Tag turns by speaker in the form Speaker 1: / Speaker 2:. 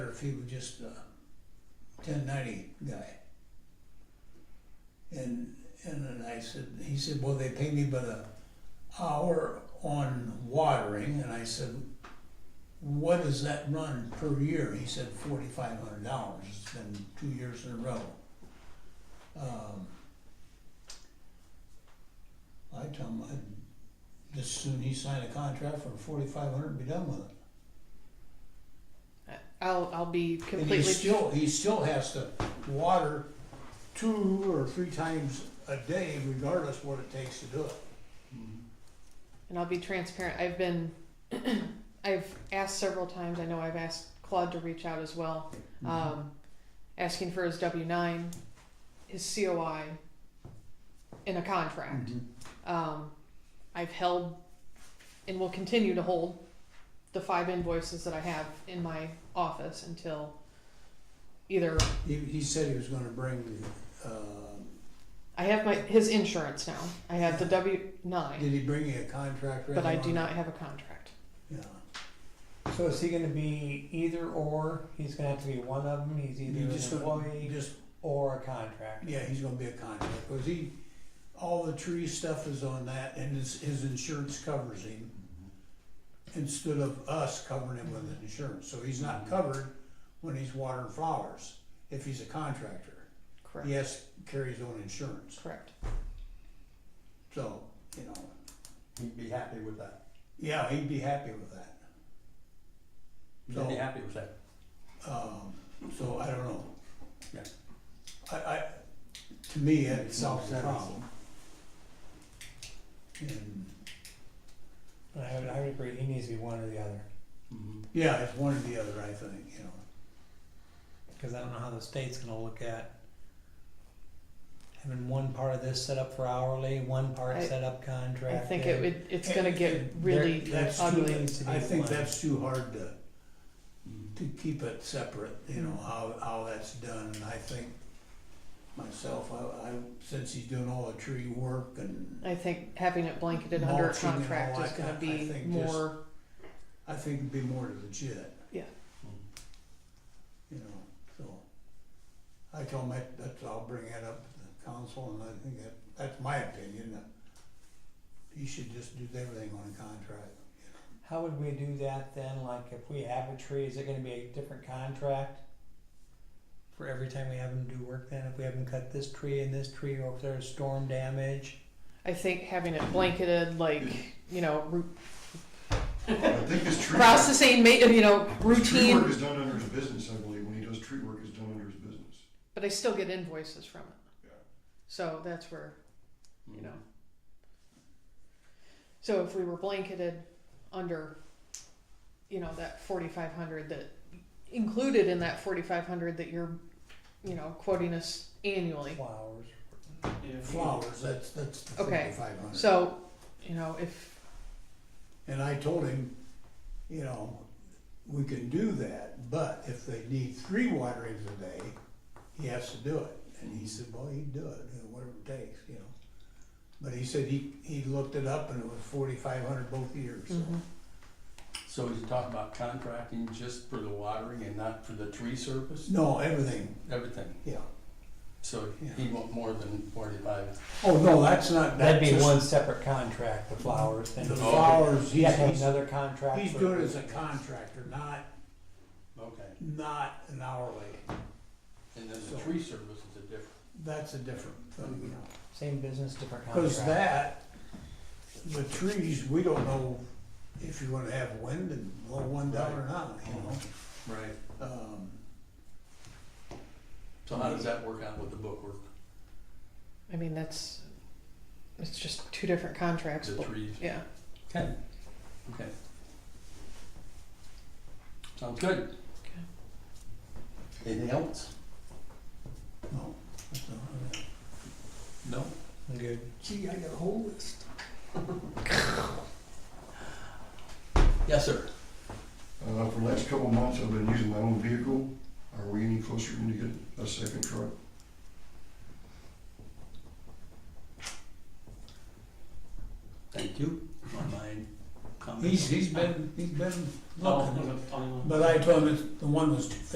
Speaker 1: if he was just a ten ninety guy. And, and then I said, he said, well, they pay me by the hour on watering, and I said, what does that run per year? He said forty-five hundred dollars, it's been two years in a row. Um, I tell him, I'd just soon he signed a contract for forty-five hundred, be done with it.
Speaker 2: I'll I'll be
Speaker 1: And he
Speaker 2: completely
Speaker 1: still, he still has to water two or three times a day regardless what it takes to do it.
Speaker 2: and I'll be transparent. I've been I've asked several times. I know I've asked Claude to reach out as well, um, asking for his W nine, his COI, in a contract. Um, I've held and will continue to hold the five invoices that I have in my office until either
Speaker 1: He, he said he was gonna bring, uh,
Speaker 2: I have my his insurance now. I have the W nine,
Speaker 1: did he bring you a contract?
Speaker 2: but I
Speaker 1: ready on
Speaker 2: do
Speaker 1: it?
Speaker 2: not have a contract.
Speaker 1: Yeah,
Speaker 3: So is he going to be either or? He's going to have to be one of them. He's either
Speaker 1: you just
Speaker 3: an
Speaker 1: gonna,
Speaker 3: employee
Speaker 1: just,
Speaker 3: or a contractor.
Speaker 1: yeah, he's gonna be a contract, cause he, all the tree stuff is on that and his, his insurance covers him. Instead of us covering him with
Speaker 2: Mm-hmm.
Speaker 1: insurance, so he's not covered when he's watering flowers, if he's a contractor.
Speaker 2: Correct.
Speaker 1: He has to carry his own insurance,
Speaker 2: Correct.
Speaker 1: so, you know,
Speaker 4: He'd be happy with that.
Speaker 1: yeah, he'd be happy with that.
Speaker 4: He'd be
Speaker 1: So,
Speaker 4: happy with that.
Speaker 1: um, so I don't know.
Speaker 4: Yeah.
Speaker 1: I, I, to me, it
Speaker 4: Makes
Speaker 1: solves the
Speaker 4: more sense.
Speaker 1: problem. And,
Speaker 3: I would, I would agree. He needs to be one or the other
Speaker 4: Mm-hmm.
Speaker 1: yeah, it's one or the other, I think, you know,
Speaker 3: because I don't know how the state's going to look at having one part of this set up for hourly, one part
Speaker 2: I-
Speaker 3: set up
Speaker 2: I
Speaker 3: contract.
Speaker 2: think it would. It's going to
Speaker 1: There-
Speaker 2: get really
Speaker 1: that's too-
Speaker 2: ugly.
Speaker 3: needs to be
Speaker 1: I think
Speaker 3: one.
Speaker 1: that's too hard to,
Speaker 4: Mm-hmm.
Speaker 1: to keep it separate, you know, how, how that's done, and I think myself, I, I, since he's doing all the tree work and
Speaker 2: I think having it blanketed under a
Speaker 1: Mulching and all
Speaker 2: contract is
Speaker 1: that
Speaker 2: going to
Speaker 1: kind- I
Speaker 2: be
Speaker 1: think just-
Speaker 2: more.
Speaker 1: I think it'd be more legit.
Speaker 2: Yeah.
Speaker 1: You know, so, I told him that, that's, I'll bring that up to the council, and I think that, that's my opinion, that he should just do everything on a contract.
Speaker 3: How would we do that then? Like if we have a tree, is it going to be a different contract? For every time we have him do work, then if we have him cut this tree and this tree, or if there's storm damage,
Speaker 2: I think having it blanketed, like you know, ru-
Speaker 5: I think his tree, his
Speaker 2: processing, ma- you know,
Speaker 5: tree work
Speaker 2: routine.
Speaker 5: is done under his business, I believe, when he does tree work, is done under his business.
Speaker 2: But I still get invoices from it.
Speaker 5: Yeah.
Speaker 2: So that's where you know. So if we were blanketed under, you know, that forty-five hundred that included in that forty-five hundred that you're, you know, quoting us annually.
Speaker 3: flowers.
Speaker 1: Flowers, that's, that's the
Speaker 2: Okay,
Speaker 1: forty-five hundred.
Speaker 2: So, you know, if
Speaker 1: And I told him, you know, we can do that, but if they need three waterings a day, he has to do it. And he said, well, he'd do it, you know, whatever it takes, you know. But he said he, he looked it up and it was forty-five hundred both years, so.
Speaker 2: Mhm.
Speaker 4: So he's talking about contracting just for the watering and not for the tree service,
Speaker 1: No, everything,
Speaker 4: everything.
Speaker 1: yeah.
Speaker 4: So he want more than forty-five.
Speaker 1: Oh, no, that's not,
Speaker 3: That'd
Speaker 1: that's
Speaker 3: be
Speaker 1: just
Speaker 3: one separate contract, the flowers thing.
Speaker 1: the
Speaker 4: Okay.
Speaker 1: flowers, he's,
Speaker 3: You have to have
Speaker 1: he's,
Speaker 3: another contract.
Speaker 1: he's
Speaker 3: for-
Speaker 1: doing it as a contractor, not,
Speaker 4: Okay.
Speaker 1: not an hourly.
Speaker 4: And then
Speaker 1: So-
Speaker 4: the tree service is a different.
Speaker 1: That's a different thing, you know.
Speaker 3: Same business, different contract.
Speaker 1: Cause that, the trees, we don't know if you're gonna have wind and blow one down or not, you
Speaker 3: Uh-huh.
Speaker 1: know?
Speaker 4: Right.
Speaker 1: Um,
Speaker 4: So how does that work out with the bookwork,
Speaker 2: I mean, that's, it's just two different contracts,
Speaker 4: the
Speaker 2: but,
Speaker 4: trees?
Speaker 2: yeah.
Speaker 4: Okay. Okay. Sounds good. Anything else?
Speaker 1: no. that's not what I-
Speaker 4: No.
Speaker 3: Good.
Speaker 4: Gee, I got a whole list. Yes, sir.
Speaker 5: Uh, for the last couple of months, I've been using my own vehicle. Are we any closer to getting a second truck?
Speaker 4: Thank you. On my comments.
Speaker 1: He's, he's been, he's been
Speaker 4: Oh,
Speaker 1: looking, but I told him it's, the one was too